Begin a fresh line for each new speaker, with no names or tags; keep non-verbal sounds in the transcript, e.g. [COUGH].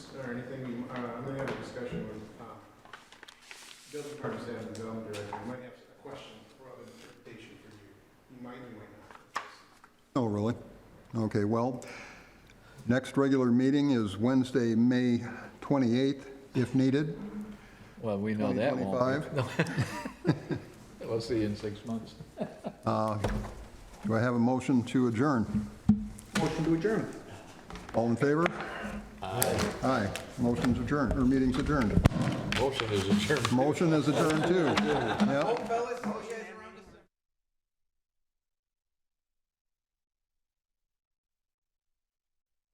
or anything, you- uh, I'm gonna have a discussion with, uh, building department staff and development director, you might have a question or other interpretation for you, you might, you might not.
Oh, really? Okay, well, next regular meeting is Wednesday, May 28th, if needed.
Well, we know that won't.
2025.
be. [LAUGHS] We'll see you in six months.
Do I have a motion to adjourn?
Motion to adjourn.
All in favor? Aye. Aye. Motion's adjourned, or meeting's adjourned.
Motion is adjourned. [LAUGHS]
Motion is adjourned, too. Yep.
Fellas, oh yeah,